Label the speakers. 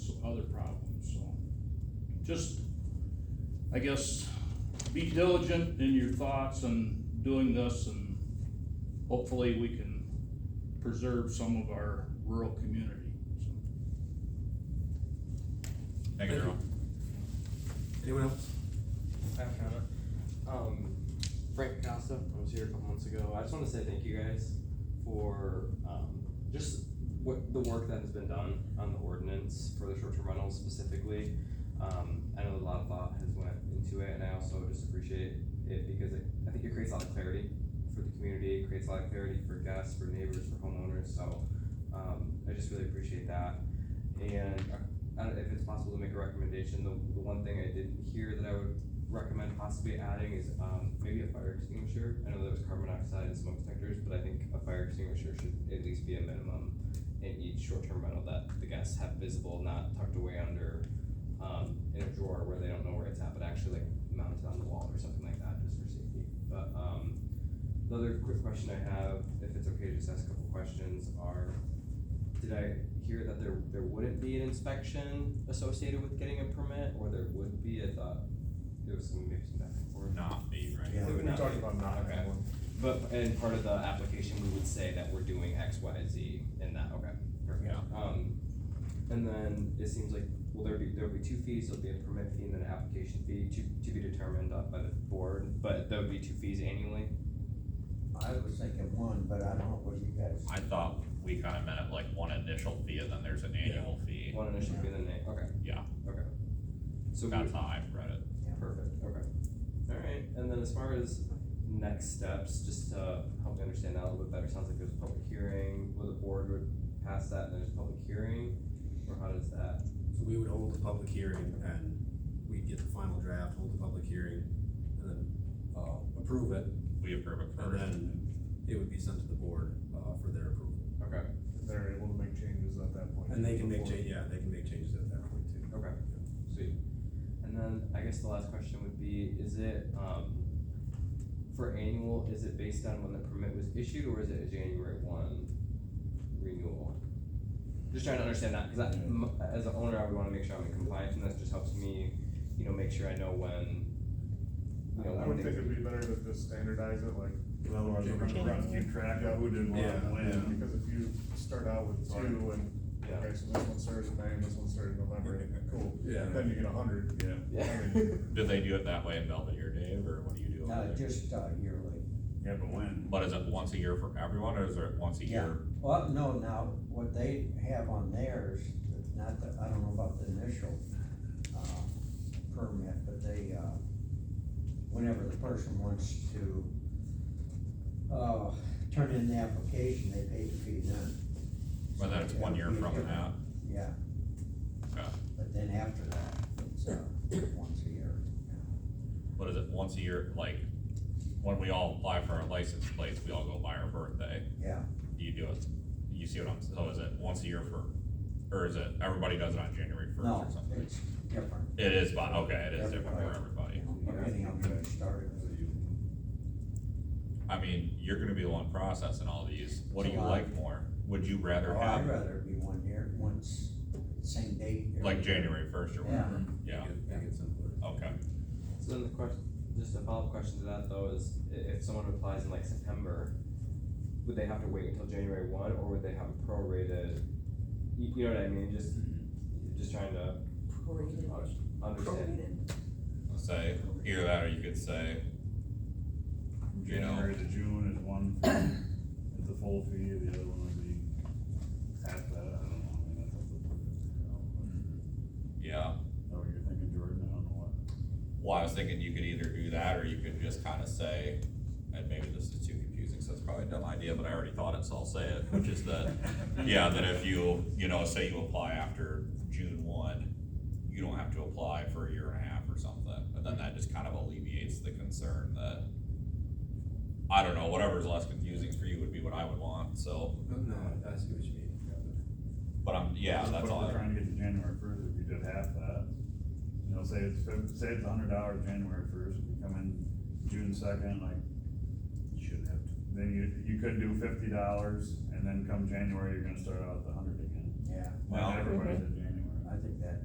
Speaker 1: other problems, so. Just, I guess, be diligent in your thoughts and doing this and hopefully we can preserve some of our rural community, so.
Speaker 2: Thank you, Darrell.
Speaker 3: Anyone else?
Speaker 4: I have a comment. Um, Frank Costa, I was here a couple months ago. I just want to say thank you guys for um, just what the work that has been done on the ordinance for the short-term rentals specifically. Um, I know a lot of thought has went into it, and I also just appreciate it because it, I think it creates a lot of clarity for the community. It creates a lot of clarity for guests, for neighbors, for homeowners. So um, I just really appreciate that. And I don't, if it's possible to make a recommendation, the, the one thing I didn't hear that I would recommend possibly adding is um, maybe a fire extinguisher. I know there was carbon monoxide and smoke detectors, but I think a fire extinguisher should at least be a minimum in each short-term rental that the guests have visible, not tucked away under um, in a drawer where they don't know where it's at, but actually like mounted on the wall or something like that, just for safety. But um, the other quick question I have, if it's okay to just ask a couple questions, are did I hear that there there wouldn't be an inspection associated with getting a permit, or there would be? I thought there was some maybe some back and forth.
Speaker 2: Not me, right?
Speaker 3: Yeah,
Speaker 4: It would
Speaker 3: we
Speaker 4: not
Speaker 3: talked
Speaker 4: be-
Speaker 3: about not
Speaker 4: okay.
Speaker 3: having one.
Speaker 4: But and part of the application, we would say that we're doing X, Y, Z in that, okay, perfect.
Speaker 2: Yeah.
Speaker 4: Um, and then it seems like, will there be, there'll be two fees, there'll be a permit fee and then an application fee to, to be determined up by the board, but there would be two fees annually?
Speaker 5: I was thinking one, but I don't know what you guys.
Speaker 2: I thought we kinda meant it like one initial fee and then there's an annual fee.
Speaker 4: One initial fee and then a, okay.
Speaker 2: Yeah.
Speaker 4: Okay. So we
Speaker 2: That's how I've read it.
Speaker 4: Perfect, okay. Alright, and then as far as next steps, just to help me understand that a little bit better, sounds like there's a public hearing, where the board would pass that and there's a public hearing, or how does that?
Speaker 3: So we would hold the public hearing and we'd get the final draft, hold the public hearing, and then, uh, approve it,
Speaker 2: We approve it
Speaker 3: and
Speaker 2: first.
Speaker 3: then it would be sent to the board, uh, for their approval.
Speaker 4: Okay,
Speaker 6: They're able to make changes at that point.
Speaker 3: And they can make
Speaker 6: Before-
Speaker 3: change, yeah, they can make changes at that point too.
Speaker 4: okay, sweet. And then I guess the last question would be, is it, um, for annual, is it based on when the permit was issued or is it a January one renewal? Just trying to understand that, cause I, m- as an owner, I would wanna make sure I'm in compliance and this just helps me, you know, make sure I know when. you know,
Speaker 6: I
Speaker 4: when
Speaker 6: would
Speaker 4: things-
Speaker 6: think it'd be better to just standardize it, like.
Speaker 3: Well, we're-
Speaker 6: keep track- Keep track of who did what
Speaker 3: Yeah,
Speaker 6: and
Speaker 3: yeah.
Speaker 6: when, because if you start out with two and,
Speaker 4: Yeah.
Speaker 6: okay, so this one started in May, and this one started in November, cool.
Speaker 3: Yeah.
Speaker 6: Then you get a hundred. Yeah.
Speaker 4: Yeah.
Speaker 6: I mean,
Speaker 2: Do they do it that way in Belvedere, Dave, or what do you do? over
Speaker 5: No,
Speaker 2: there?
Speaker 5: just uh, yearly.
Speaker 7: Yeah, but when?
Speaker 2: But is it once a year for everyone or is it once a
Speaker 5: Yeah.
Speaker 2: year?
Speaker 5: Well, no, now, what they have on theirs, not the, I don't know about the initial, uh, permit, but they, uh, whenever the person wants to, uh, turn in the application, they pay the fee then.
Speaker 2: But then it's one year from that.
Speaker 5: Yeah.
Speaker 2: Okay.
Speaker 5: But then after that, it's, uh, once a year.
Speaker 2: But is it once a year, like, when we all apply for our license plates, we all go by our birthday?
Speaker 5: Yeah,
Speaker 2: Do you do it, you see what I'm, so is it once a year for, or is it, everybody does it on January first
Speaker 5: no,
Speaker 2: or something?
Speaker 5: it's different.
Speaker 2: It is, but, okay, it is different for
Speaker 5: Everybody.
Speaker 2: everybody.
Speaker 5: Depending on where it started.
Speaker 2: I mean, you're gonna be the one processing all these, what do you
Speaker 5: July.
Speaker 2: like more? Would you rather
Speaker 5: Oh, I'd
Speaker 2: have,
Speaker 5: rather it be one year, once, same date. every
Speaker 2: like,
Speaker 5: year.
Speaker 2: January first or
Speaker 5: Yeah.
Speaker 2: whatever? Yeah,
Speaker 3: Make it- Make it simpler.
Speaker 2: okay,
Speaker 4: So then the question, just a follow-up question to that though is, i- if someone applies in like September, would they have to wait until January one, or would they have a prorated, you, you know what I mean, just, just trying to
Speaker 8: Prorated.
Speaker 4: understand.
Speaker 2: say, either that or you could say, You know.
Speaker 7: January to June is one fee, is the full fee, the other one would be half that, I don't know, I mean, that's up to the board to figure out.
Speaker 2: Mm-hmm. yeah.
Speaker 7: Is that what you're thinking, Jordan, I don't know what.
Speaker 2: Well, I was thinking you could either do that or you could just kinda say, and maybe this is too confusing, so it's probably a dumb idea, but I already thought it, so I'll say it, which is that, yeah, that if you, you know, say you apply after June one, you don't have to apply for a year and a half or something, and then that just kind of alleviates the concern that, I don't know, whatever's less confusing for you would be what I would want, so,
Speaker 3: No, I see what you mean.
Speaker 2: but I'm, yeah, that's all.
Speaker 7: But if
Speaker 2: I-
Speaker 7: we're trying to get to January first, if you did half that, you know, say it's, fif- say it's a hundred dollars January first, you come in June second, like,
Speaker 3: You shouldn't have to.
Speaker 7: then you, you could do fifty dollars, and then come January, you're gonna start out at the hundred again.
Speaker 5: Yeah,
Speaker 7: Then
Speaker 2: Well-
Speaker 7: everybody's at